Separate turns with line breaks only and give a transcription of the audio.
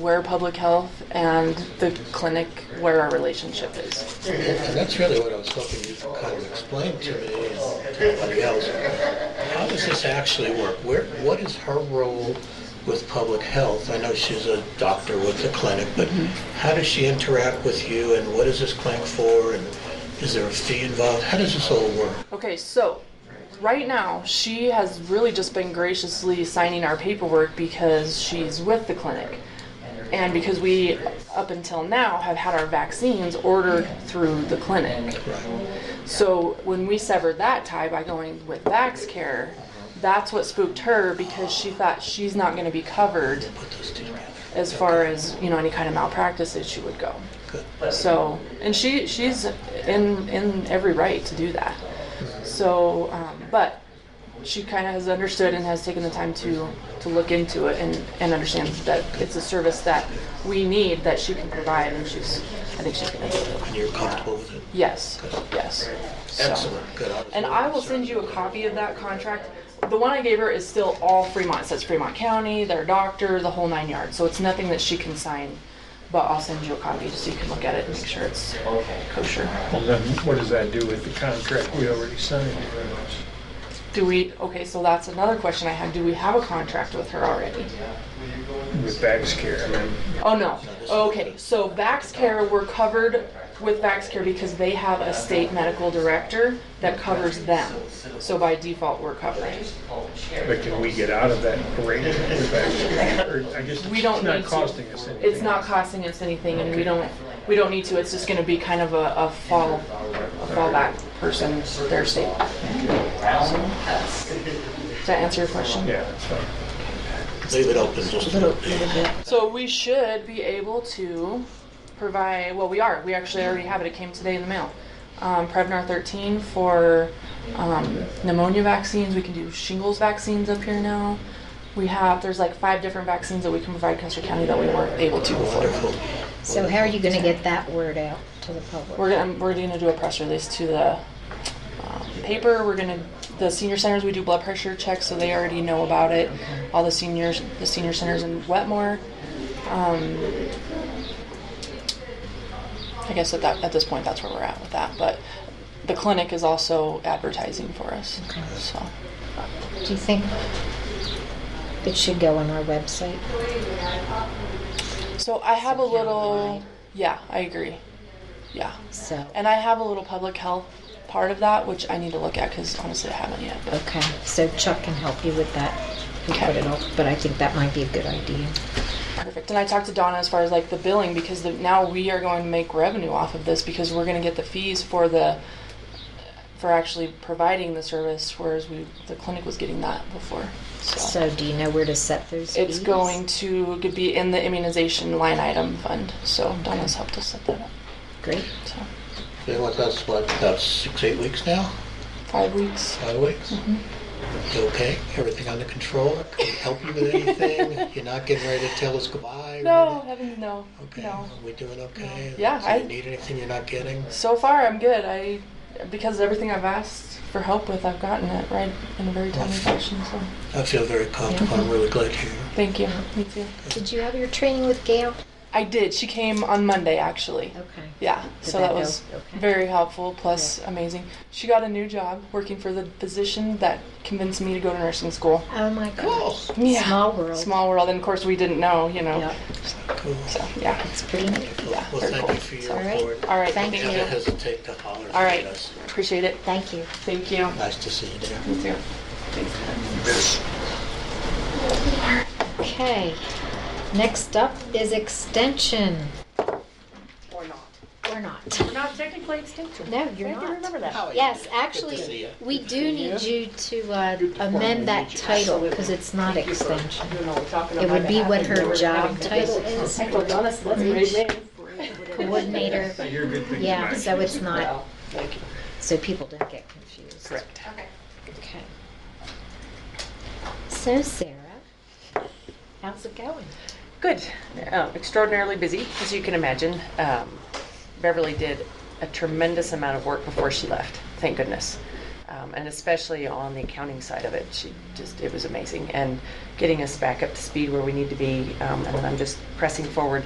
where public health and the clinic where our relationship is.
And that's really what I was hoping you could kind of explain to me and to everybody else. How does this actually work? Where, what is her role with public health? I know she's a doctor with the clinic, but how does she interact with you and what is this clinic for? And is there a fee involved? How does this all work?
Okay, so right now she has really just been graciously signing our paperwork because she's with the clinic. And because we, up until now, have had our vaccines ordered through the clinic.
Right.
So when we severed that tie by going with VaxCare, that's what spooked her because she thought she's not going to be covered
Put those two together.
as far as you know any kind of malpractice issue would go.
Good.
So, and she she's in in every right to do that. So, um, but she kind of has understood and has taken the time to to look into it and and understand that it's a service that we need that she can provide, and she's I think she's gonna do it.
And you're comfortable with it?
Yes, yes. So-
Excellent. Good. was
and
really
I will
concerned.
send you a copy of that contract. The one I gave her is still all Fremont. It says Fremont County, their doctor, the whole nine yards. So it's nothing that she can sign. But I'll send you a copy just so you can look at it and make sure it's kosher.
Well, Then what does that do with the contract we already signed?
Do we, okay, so that's another question I had. Do we have a contract with her already?
With Baxcare, I mean,
Oh, no. Okay, so VaxCare, we're covered with VaxCare because they have a state medical director that covers them. So by default, we're covered.
but can we get out of that arrangement with Baxcare? Or I guess
We don't
it's
need
not
to.
costing us anything.
it's not costing us anything and we don't, we don't need to, it's just gonna be kind of a, a fall, a fallback person, their state. Does that answer your question?
Yeah, that's fine.
Leave it open just a little bit.
So we should be able to provide, well, we are, we actually already have it, it came today in the mail. Um, Prevnar thirteen for, um, pneumonia vaccines, we can do shingles vaccines up here now. We have, there's like five different vaccines that we can provide Custer County that we weren't able to before.
Wonderful.
So how are you gonna get that word out to the public?
We're gonna, we're gonna do a press release to the um, paper. We're gonna the senior centers. We do blood pressure checks, so they already know about it. All the seniors, the senior centers in Wetmore. Um, I guess at that at this point, that's where we're at with that. But the clinic is also advertising for us.
Okay.
So
Do you think it should go on our website?
so I have a
Secure
little.
line.
Yeah, I agree. Yeah,
So,
and I have a little public health part of that, which I need to look at because honestly, I haven't yet. But
okay, so Chuck can help you with that. and
Okay.
put it up, But I think that might be a good idea.
Perfect. And I talked to Donna as far as like the billing because the, now we are going to make revenue off of this because we're going to get the fees for the for actually providing the service, whereas we the clinic was getting that before. So,
So do you know where to set those
it's
fees?
going to could be in the immunization line item fund. So Donna's helped us set that up.
Great.
So
You know what, that's what, about six, eight weeks now?
five weeks.
Five weeks? You okay? Everything under control? Can we help you with anything? You're not getting ready to tell us goodbye? or
No,
anything?
heavens, no,
Okay,
no.
are we doing okay?
Yeah,
Do you
I-
need anything you're not getting?
So far, I'm good. I because everything I've asked for help with, I've gotten it right in a very timely fashion. So
I feel very comfortable. I'm really glad you're here.
thank you. Me too.
Did you have your training with Gail?
I did. She came on Monday, actually.
Okay.
Yeah,
Did
so
that
that
go-
was
okay.
very helpful, plus amazing. She got a new job working for the physician that convinced me to go to nursing school.
Oh my gosh.
Yeah.
Small world.
Small world, and of course we didn't know, you know.
Yeah.
Cool.
So yeah.
It's pretty neat.
Yeah,
Well,
very
thank
cool.
you for your
All right.
report.
All right.
Thank
Thank,
Don't
you.
hesitate to holler
All
at
right.
us.
Appreciate it.
Thank you.
Thank you.
Nice to see you there.
You too. Thanks.
Okay. Next up is extension.
Or not.
Or not.
Not technically extinct.
No, you're
I have to
not.
remember that.
Yes,
Good to see
actually,
ya.
we do need you to uh, amend that title because it's not extension.
You know, we're talking
It
on
would
my
be what
behalf, and
her
we're
job
having-
title is,
I told Donna, so let's raise names.
coordinator.
You're a good thing.
Yeah, so it's not,
Well, Thank you.
so people don't get confused.
Correct.
Okay. So Sarah, how's it going?
Good. Um, Extraordinarily busy, as you can imagine. Um, Beverly did a tremendous amount of work before she left, thank goodness. Um, um, and especially on the accounting side of it. She just, it was amazing, and getting us back up to speed where we need to be. Um, and I'm just pressing forward